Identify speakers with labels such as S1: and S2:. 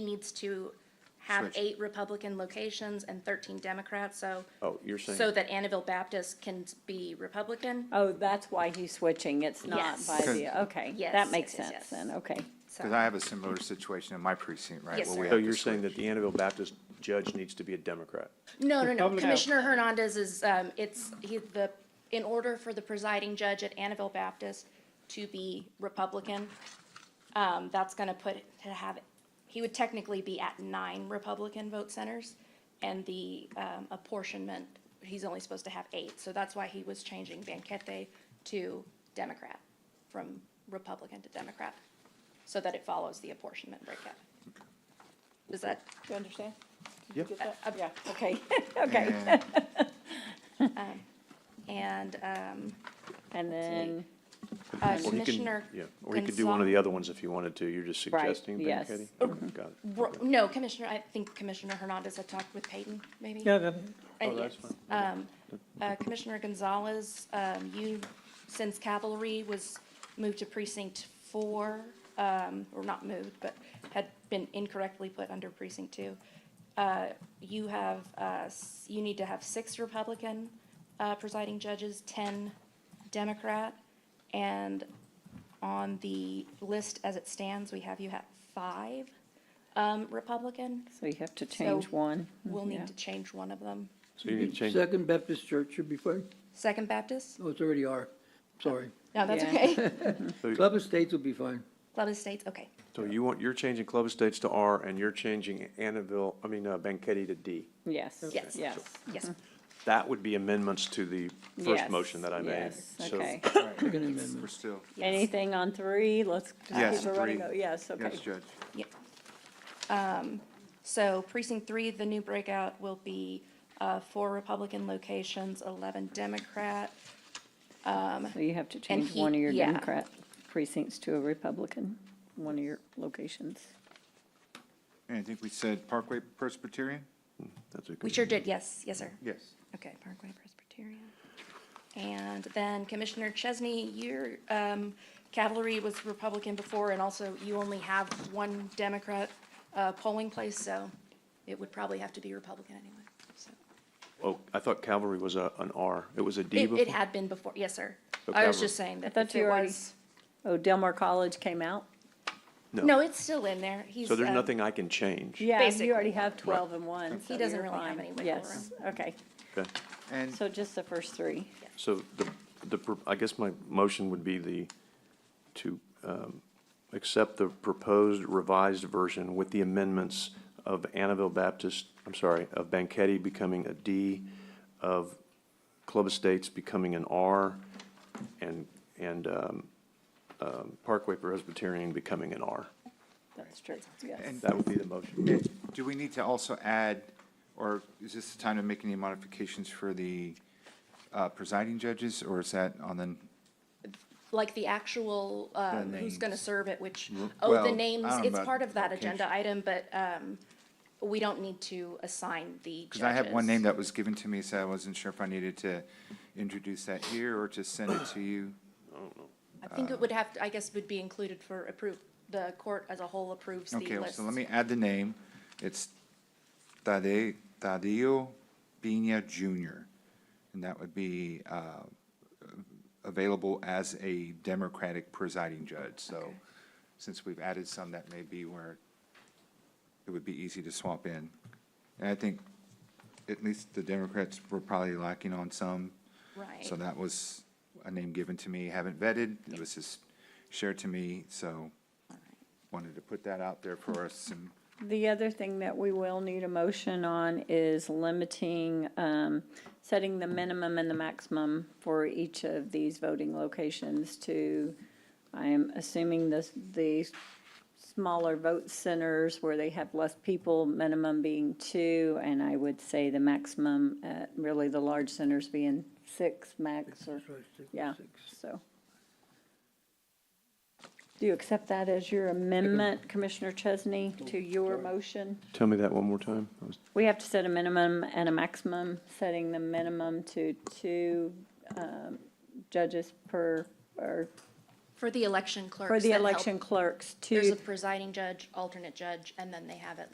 S1: needs to have
S2: Switch.
S1: eight Republican locations and thirteen Democrats, so.
S2: Oh, you're
S1: So
S2: saying,
S1: that Annabelle Baptist can be Republican,
S3: Oh, that's why he's switching, it's not
S1: Yes.
S3: by the, okay,
S1: Yes,
S3: that makes
S1: yes, yes,
S3: sense
S1: yes.
S3: then, okay.
S4: Because I
S1: so.
S4: have a similar situation in my precinct, right?
S1: Yes,
S4: where
S1: sir.
S4: we
S2: so
S4: have
S2: you're
S4: to
S2: saying
S4: switch.
S2: that the Annabelle Baptist judge needs to be a Democrat?
S1: No, no, no,
S5: Republican.
S1: Commissioner Hernandez is, um, it's, he, the, in order for the presiding judge at Annabelle Baptist to be Republican, um, that's gonna put, to have, he would technically be at nine Republican vote centers, and the, um, apportionment, he's only supposed to have eight, so that's why he was changing Banquete to Democrat, from Republican to Democrat, so that it follows the apportionment breakup. Does that,
S3: Do you understand?
S2: Yep.
S1: uh,
S3: Yeah, okay, okay.
S4: And
S1: and, um,
S3: And then,
S1: Uh,
S2: Or he can-
S1: Commissioner.
S2: Yeah, or he could do one of the
S1: Gonzal-
S2: other ones if he wanted to, you're just
S3: Right,
S2: suggesting, Ben
S3: yes.
S2: Katie?
S1: Oh,
S2: Okay, Got it. Oh,
S1: Ro- No, Commissioner, I think Commissioner Hernandez had talked with Peyton, maybe?
S5: Yeah, then,
S1: And
S2: Oh, that's
S1: yes.
S2: fine.
S1: Um, uh, Commissioner Gonzalez, um, you, since cavalry was moved to precinct four, um, or not moved, but had been incorrectly put under precinct two, uh, you have, uh, s- you need to have six Republican uh, presiding judges, ten Democrat, and on the list as it stands, we have you have five um, Republican.
S3: so you have to change
S1: So,
S3: one.
S1: We'll
S3: Mm-hmm. yeah.
S1: need to change one of them.
S2: So you need to change,
S5: Second Baptist Church should be fine.
S1: Second Baptist?
S5: Oh, it's already are. Sorry.
S1: No, that's
S3: Yeah.
S1: okay.
S5: Club of States will be fine.
S1: Club of States, okay.
S2: so you want, you're changing Club Estates to R and you're changing Annabelle, I mean, uh, Banquetti to D.
S3: Yes,
S1: Yes.
S3: yes. Mm-hmm.
S1: Yes,
S2: That would be amendments to the first
S3: yes,
S2: motion that I made.
S3: yes,
S2: So
S3: Okay,
S5: Second
S4: We're
S5: amendment.
S4: still,
S3: anything on three, let's
S4: Yes,
S3: just keep it running,
S4: three.
S3: Go- yes, okay.
S4: yes, Judge.
S1: yeah. Um, So precinct three, the new breakout will be uh, four Republican locations, 11 Democrat.
S3: So you have to change
S1: he-
S3: one of your
S1: yeah.
S3: Democrat precincts to a Republican, one of your locations.
S4: And I think we said Parkway Presbyterian?
S2: that's a good-
S1: We sure did, yes, yes, sir.
S4: Yes.
S1: Okay, Parkway Presbyterian. And then Commissioner Chesney, your um, cavalry was Republican before, and also you only have one Democrat uh, polling place, so it would probably have to be Republican anyway. so.
S2: Oh, I thought Cavalry was a, an R. It was a D
S1: It
S2: before?
S1: it had been before, yes, sir.
S2: So
S1: I was
S2: Cavalry-
S1: just saying that
S3: thought
S1: if
S3: you
S1: it
S3: already-
S1: was,
S3: Oh, Delmar College came out?
S1: no, it's still in there. He's,
S2: So there's
S1: um,
S2: nothing I can change?
S3: Yeah, you
S1: Basically.
S3: already have twelve and one, so
S1: doesn't
S3: you're
S1: really have
S3: fine.
S1: any wiggle
S3: Yes, okay,
S2: Okay.
S4: And
S3: so just the first three.
S2: So the, the, pro- I guess my motion would be the, to um, accept the proposed revised version with the amendments of Annabelle Baptist, I'm sorry, of Banquetti becoming a D, of Club Estates becoming an R, and, and um, um, Parkway Presbyterian becoming an R.
S3: That's true, yes.
S4: And-
S2: That would be the motion.
S4: do we need to also add, or is this the time to make any modifications for the uh, presiding judges? Or is that on the,
S1: like the actual, um, who's gonna
S4: names.
S1: serve it, which,
S4: Mm,
S1: oh,
S4: well,
S1: the
S4: I
S1: names,
S4: don't know
S1: it's
S4: about
S1: part of that agenda
S4: location.
S1: item, but, um, we don't need to assign the judges.
S4: because I have one name that was given to me, so I wasn't sure if I needed to introduce that here or to send it to you.
S1: I
S4: uh,
S1: think it would have, to- I guess would be included for approve, the court as a whole approves the
S4: Okay,
S1: list.
S4: so let me add the name. It's Tade, Tadeo Pena Jr. And that would be uh, available as a Democratic presiding judge. So since we've added some, that may be where it would be easy to swap in. And I think at least the Democrats were probably lacking on some.
S1: Right.
S4: So that was a name given to me, haven't vetted. It was just shared to me, so wanted to put that out there for us and
S3: The other thing that we will need a motion on is limiting, um, setting the minimum and the maximum for each of these voting locations to, I am assuming this, the smaller vote centers where they have less people, minimum being two, and I would say the maximum, uh, really the large centers being six max or, yeah, so. Do you accept that as your amendment, Commissioner Chesney, to your motion?
S2: Tell me that one more time. I was-
S3: We have to set a minimum and a maximum, setting the minimum to two um, judges per, or
S1: For the election clerks.
S3: For the
S1: that help,
S3: election clerks to.
S1: There's a presiding judge, alternate judge, and then they have at